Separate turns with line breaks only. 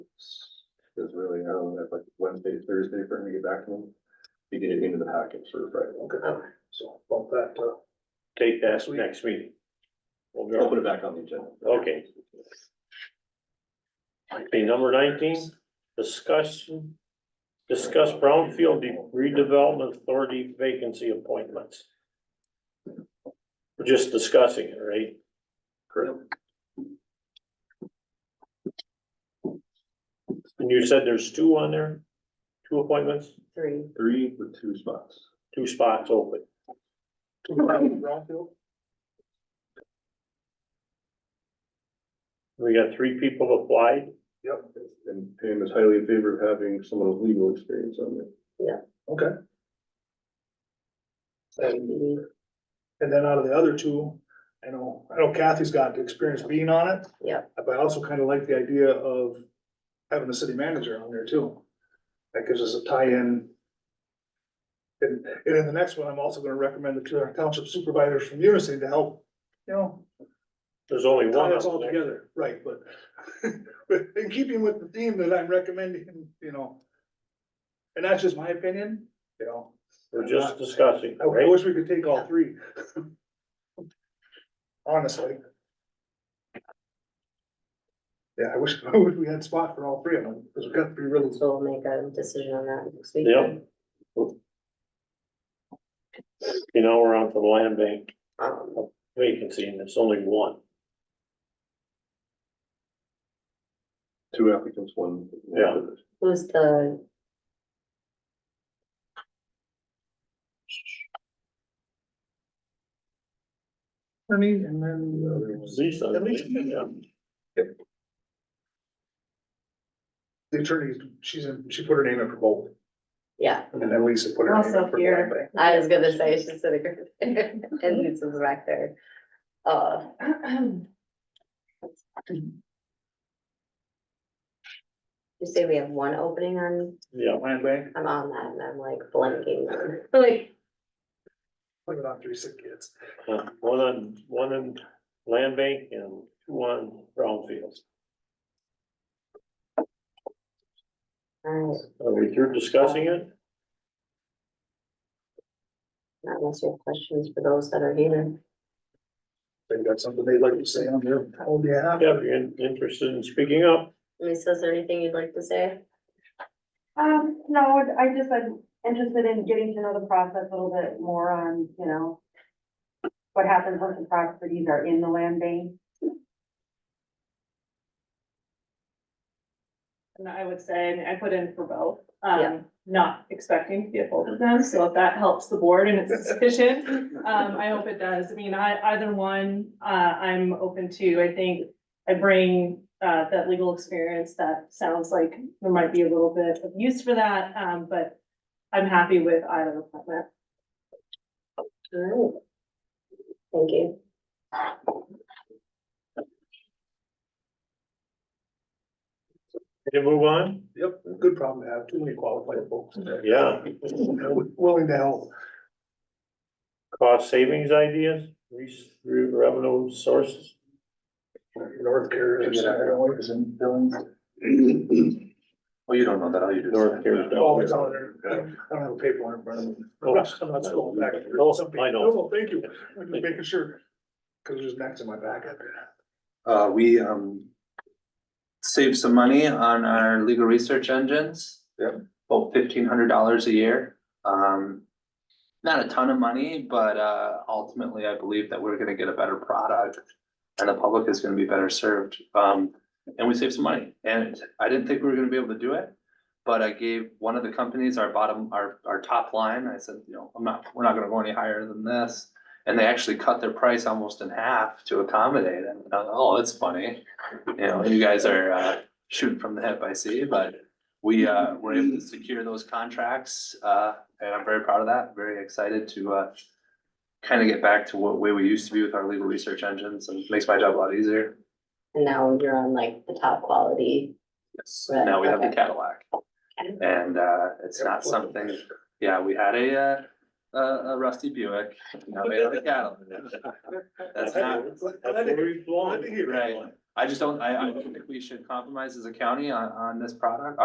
Is really, um, that's like Wednesday, Thursday for him to get back to them, to get it into the package for Friday.
Okay, so bump that
uh,
to take that next meeting. We'll
I'll
go,
put it back on the agenda.
okay. Okay, number nineteen, discussion, discuss brownfield redevelopment authority vacancy appointments. We're just discussing it, right?
Correct.
And you said there's two on there, two appointments,
three.
Three with two spots.
two spots open. We got three people applied.
Yep. And Pam is highly in favor of having someone with legal experience on it.
Mhm.
And then out of the other two, I know, I know Kathy's got experience being on it.
Yep.
But I also kind of like the idea of having the city manager on there too. That gives us a tie-in. And, and in the next one, I'm also gonna recommend the two township supervisors from Unison to help, you know,
There's only one
tie
up
us all
there.
together, right, but but in keeping with the theme that I'm recommending, you know. And that's just my opinion, you know,
We're just discussing,
I I
right?
wish we could take all three. Honestly. Yeah, I wish, I wish we had spot for all three of them, because we've got three really,
So we'll make a decision on that next week.
Yeah. You know, we're on to the land bank
Um,
vacancy and it's only one.
Two applicants, one.
Yeah.
who's the,
Ernie, and then
Lisa, I believe, yeah.
the attorney, she's in, she put her name in for both,
yeah,
and then Lisa put her name in
also
for
here,
Lambert.
I was gonna say, it's just sitting there, and this is back there. Uh. You say we have one opening on,
Yeah,
Land Bank,
I'm on that, and I'm like blanking, like,
put it on three sick kids.
uh, one on, one on land bank and two on brownfields.
alright,
Are we through discussing it?
not unless you have questions for those that are here.
They've got something they'd like to say on their, oh, yeah.
Yeah, if you're in- interested in speaking up,
Lisa, is there anything you'd like to say?
Um, no, I just, I'm interested in getting to know the process a little bit more on, you know, what happens once the properties are in the land bank.
And I would say, I mean, I put in for both,
Yeah.
um, not expecting to get both of them, so if that helps the board and it's sufficient, um, I hope it does. I mean, I, either one, uh, I'm open to, I think I bring, uh, that legal experience that sounds like there might be a little bit of use for that, um, but I'm happy with either appointment.
Alright. Thank you.
can you move on?
Yep, good problem to have, too many qualified folks.
Yeah,
Willing to help.
cost savings ideas, re- revenue sources.
North Carolina. and Billings.
Well, you don't know that, all you do.
North Carolina.
Oh, it's on there. I don't I don't have a paper in front of me.
Oh.
Let's go back.
Oh,
Some
I
people-
know.
No, thank you. I'm just making sure. Cause there's next in my back.
Uh, we, um, save some money on our legal research engines.
Yep.
About fifteen hundred dollars a year. Um, not a ton of money, but, uh, ultimately I believe that we're gonna get a better product and the public is gonna be better served. Um, and we save some money. And I didn't think we were gonna be able to do it. But I gave one of the companies our bottom, our, our top line. I said, you know, I'm not, we're not gonna go any higher than this. And they actually cut their price almost in half to accommodate it. And I thought, Oh, that's funny. You know, you guys are uh, shooting from the hip, I see, but we uh, were able to secure those contracts. Uh, and I'm very proud of that, very excited to uh, kind of get back to what way we used to be with our legal research engines and makes my job a lot easier.
And now you're on like the top quality.
Yes, and now we have the
Okay.
Cadillac and uh, it's not something, yeah, we had a uh, a a rusty Buick. Now we have a Cadillac. That's not,
That's where we belong.
Glad to hear.
Right. I just don't, I, I don't think we should compromise as a county on, on this product,